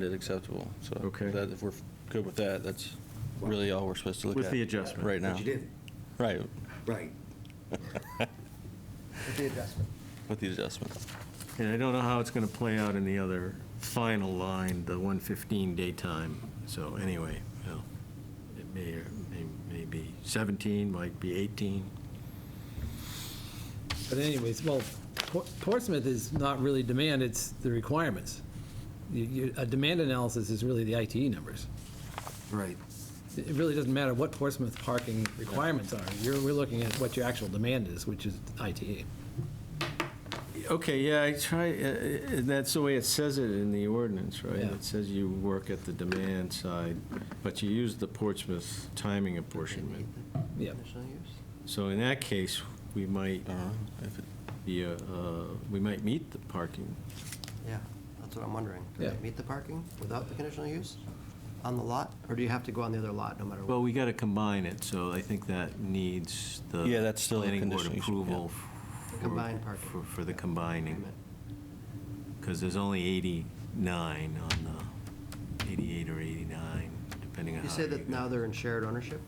find it acceptable. So Okay. that- if we're good with that, that's really all we're supposed to look at. With the adjustment. Right now. But you did, Right, right, with the adjustment. with the adjustment. And I don't know how it's going to play out in the other final line, the 115 daytime. So anyway, you know, it may, or may- may be 17, might be 18. But anyways, well, Por- Portsmouth is not really demand, it's the requirements. You- you- A demand analysis is really the ITE numbers. Right. It it really doesn't matter what Portsmouth parking requirements are. You're, we're looking at what your actual demand is, which is ITE. Okay, yeah, I try, uh, uh, that's the way it says it in the ordinance, right? Yeah. It says you work at the demand side, but you use the Portsmouth timing apportionment. Yeah. So in that case, we might I don't know if it- be, uh, uh, we might meet the parking. Yeah, that's what I'm wondering. Do Yeah. they meet the parking without the conditional use on the lot? Or do you have to go on the other lot no matter what? Well, we got to combine it, so I think that needs the. Yeah, that's still a Planning board conditional use, yeah. approval. for- Combined parking. for- For the Wait a combining, minute. because there's only 89 on the, 88 or 89, depending on how. You say that go. now they're in shared ownership?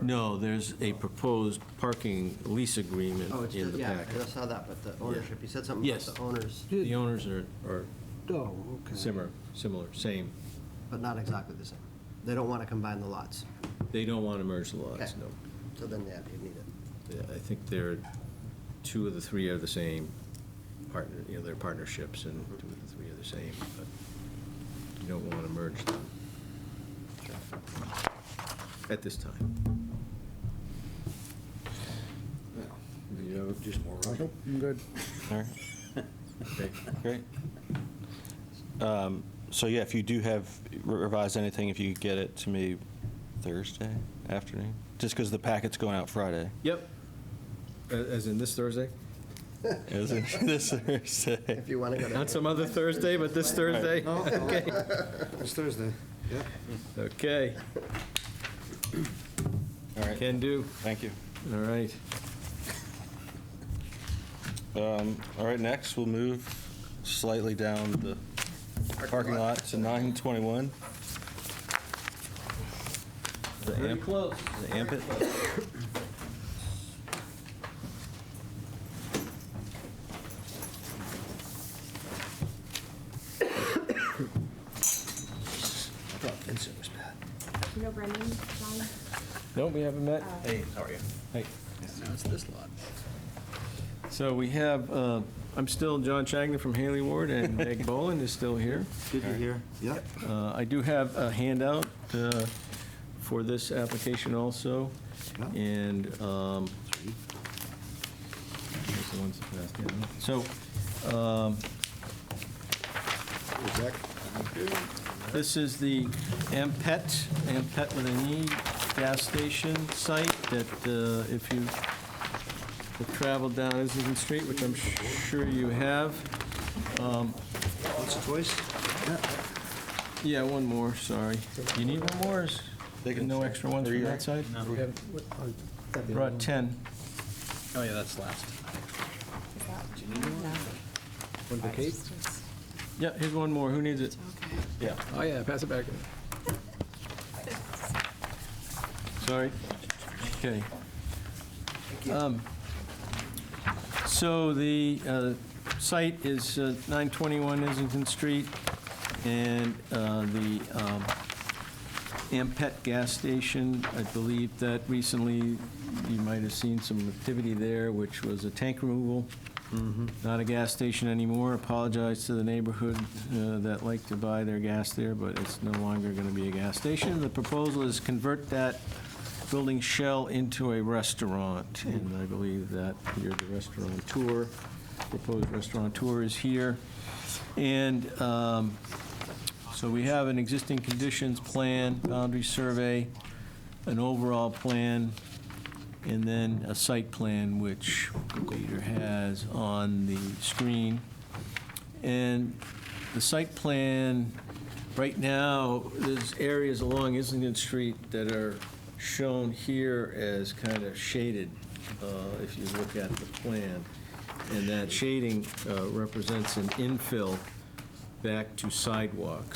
No, there's a proposed parking lease agreement Oh, it's, in just the yeah, packet. I saw that, but the ownership, you said something about Yes. the owners, The owners are, are Oh, okay. similar, similar, same. but not exactly the same. They don't want to combine the lots, They don't want to merge the lots, Okay. no. so then, yeah, you need it. Yeah, I think they're, two of the three are the same partner, you know, they're partnerships and two of the three are the same, but you don't want to merge them at this time. You have a- Just more right. All right. okay. Great. Um, So yeah, if you do have revised anything, if you could get it to me Thursday afternoon, just because the packet's going out Friday. Yep. A- As in this Thursday? Is it this Thursday? If you want to go to. Not some other Thursday, but this Thursday? Okay. It's Thursday, yeah. Okay, All right, can do. thank you. All right. Um, All right, next, we'll move slightly down the parking lot to 921. The amp, close. the amp it? I thought Vincent was bad. You know Brendan, John? No, we haven't met. Uh, Hey, how are you? Hey. Now it's this lot. So we have, uh, I'm still John Chagnon from Haley Ward, and Meg Boland is still here. Did you hear? Yep. Uh, I do have a handout uh, for this application also, Yeah. and um, here's the ones that passed down. So um, Is that- This is the Ampet, Ampet with an E, gas station site that uh, if you have traveled down Islington Street, which I'm sure you have. um, Once or twice? Yeah. Yeah, one more, sorry. You need one more? Is They can- No extra ones Three, from right? that side? Brought 10. Oh, yeah, that's last. Is that? No. One for Kate? It's just- Yeah, here's one more. Who needs it? Okay. Yeah. Oh, yeah, pass it back. Sorry. Okay. Um, So the uh, site is uh, 921 Islington Street, and uh, the um, Ampet gas station, I believe that recently, you might have seen some activity there, which was a tank removal. Not a gas station anymore. Apologize to the neighborhood uh, that like to buy their gas there, but it's no longer going to be a gas station. The proposal is convert that building shell into a restaurant, and I believe that you're the restaurateur. Proposed restaurateur is here. And um, so we have an existing conditions plan, boundary survey, an overall plan, and then a site plan, which Peter has on the screen. And the site plan, right now, there's areas along Islington Street that are shown here as kind of shaded, uh, if you look at the plan. And that shading uh, represents an infill back to sidewalks.